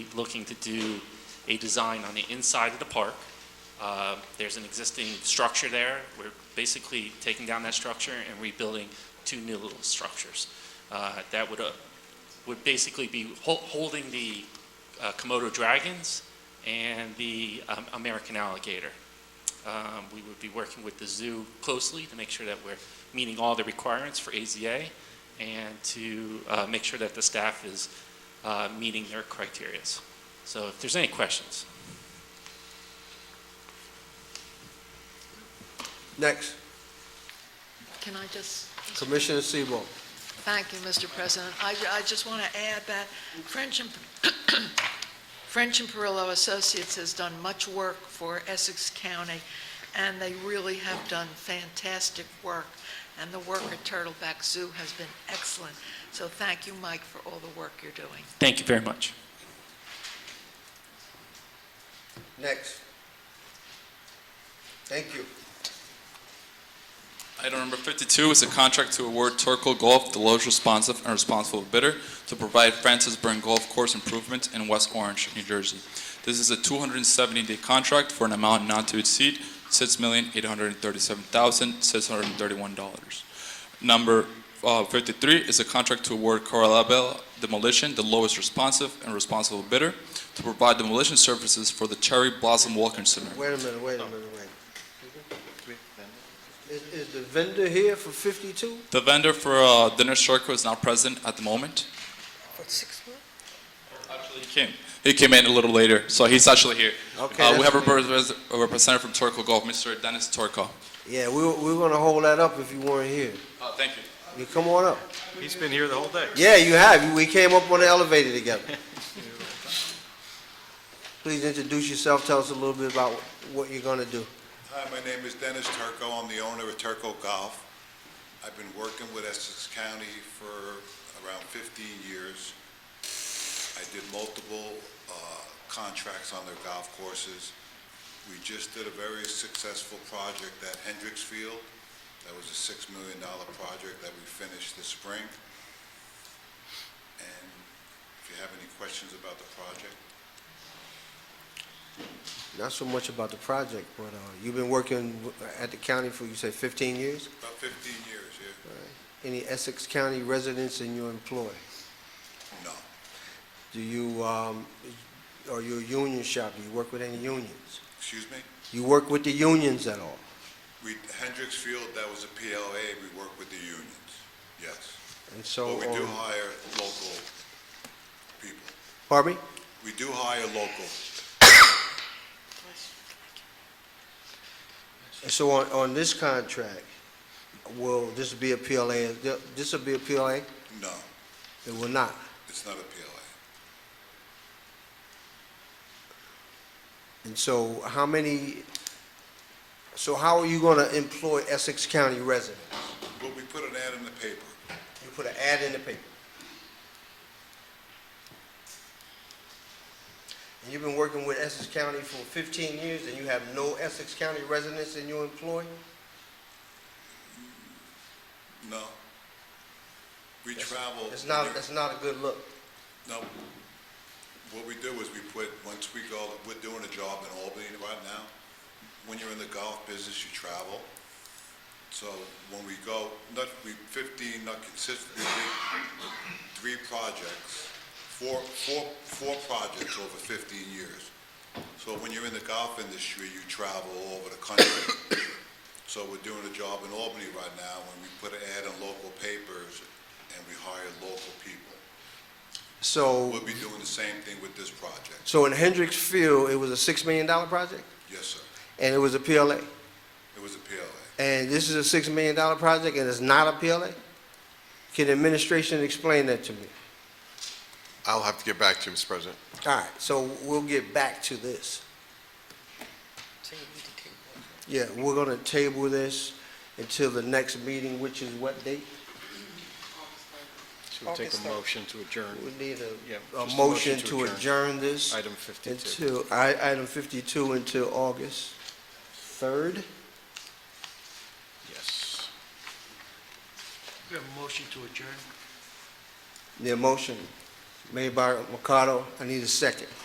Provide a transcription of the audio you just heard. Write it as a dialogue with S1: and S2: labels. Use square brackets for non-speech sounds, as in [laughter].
S1: looking to do a design on the inside of the park. Uh, There's an existing structure there. We're basically taking down that structure and rebuilding two new little structures. Uh, That would, uh, would basically be hol- holding the uh, Komodo dragons and the um, American alligator. Um, We would be working with the zoo closely to make sure that we're meeting all the requirements for AZA and to uh, make sure that the staff is uh, meeting their criterias. So if there's any questions.
S2: Next,
S3: Can I just,
S2: Commissioner Sebo.
S3: thank you, Mr. President. I, ju- I just want to add that French and, [coughs] French and Perillo Associates has done much work for Essex County, and they really have done fantastic work, and the work at Turtleback Zoo has been excellent. So thank you, Mike, for all the work you're doing.
S1: Thank you very much.
S2: Next. Thank you.
S4: Item number 52 is a contract to award Turco Golf the lowest responsive and responsible bidder to provide Francis Burn Golf Course improvements in West Orange, New Jersey. This is a 270-day contract for an amount not to exceed $6,837,631. Number uh, 53 is a contract to award Coralabel Demolition the lowest responsive and responsible bidder to provide demolition services for the Cherry Blossom Walking Center.
S2: Wait a minute, wait a minute, wait. Is, is the vendor here for fifty-two?
S4: The vendor for uh, Dinner Circle is not present at the moment. Actually, he came. He came in a little later, so he's actually here.
S2: Okay,
S4: Uh, we
S2: that's
S4: have a repres- a representative from Torco Golf, Mr. Dennis Torco.
S2: Yeah, we, were- we were gonna hold that up if you weren't here.
S4: Uh, thank you.
S2: You come on up.
S5: He's been here the whole day.
S2: Yeah, you have. We came up on the elevator [laughs] together. Please introduce yourself. Tell us a little bit about what you're gonna do.
S6: Hi, my name is Dennis Turco. I'm the owner of Turco Golf. I've been working with Essex County for around 15 years. I did multiple uh, contracts on their golf courses. We just did a very successful project at Hendricks Field. That was a $6 million project that we finished this spring. And if you have any questions about the project,
S2: Not so much about the project, but, uh, you've been working w- at the county for, you said fifteen years?
S6: about 15 years, yeah?
S2: Any Essex County residents in your employ?
S6: No,
S2: Do you, um, are you a union shop? Do you work with any unions?
S6: excuse me?
S2: You work with the unions at all?
S6: We, Hendricks Field, that was a PLA, we work with the unions, yes.
S2: And so,
S6: But we do
S2: um,
S6: hire local people.
S2: pardon me?
S6: We do hire local.
S2: And so on, on this contract, will this be a PLA? This will be a PLA?
S6: No,
S2: It will not.
S6: it's not a PLA.
S2: And so how many, so how are you gonna employ Essex County residents?
S6: But we put an ad in the paper.
S2: You put an ad in the paper. And you've been working with Essex County for fifteen years and you have no Essex County residents in your employ?
S6: No. We travel.
S2: It's not, that's not a good look.
S6: No. What we do is we put, once we go, we're doing a job in Albany right now. When you're in the golf business, you travel. So when we go, not, we fifteen, not consistent, we did three projects, four, four, four projects over fifteen years. So when you're in the golf industry, you travel all over the country. So we're doing a job in Albany right now, and we put an ad in local papers, and we hire local people.
S2: So,
S6: We'll be doing the same thing with this project.
S2: so in Hendricks Field, it was a six million dollar project
S6: Yes, sir.
S2: and it was a PLA.
S6: It was a PLA.
S2: And this is a six million dollar project and it's not a PLA? Can the administration explain that to me?
S7: I'll have to get back to you, Mr. President.
S2: All right, so we'll get back to this. Yeah, we're gonna table this until the next meeting, which is what date?
S5: Should take a motion to adjourn.
S2: We need
S5: Yeah,
S2: a,
S5: just
S2: a motion to adjourn this
S5: Item 52.
S2: until, I, item fifty-two until August third.
S5: Yes.
S8: We have a motion to adjourn.
S2: The motion, made by Mercado. I need a second.